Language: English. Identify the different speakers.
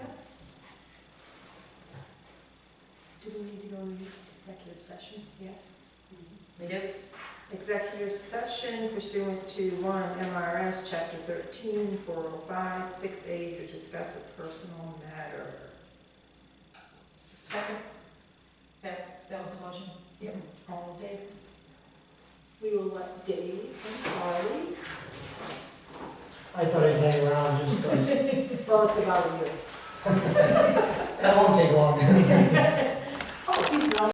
Speaker 1: session? Yes.
Speaker 2: We do?
Speaker 1: Executive session pursuant to one MRS Chapter 13, 405, 6A to discuss a personal matter.
Speaker 2: Second? That was, that was the motion?
Speaker 1: Yep. All in favor? We will let Dave and Charlie.
Speaker 3: I thought I'd hang around just,
Speaker 1: Well, it's about a year.
Speaker 3: that won't take long.
Speaker 1: Oh,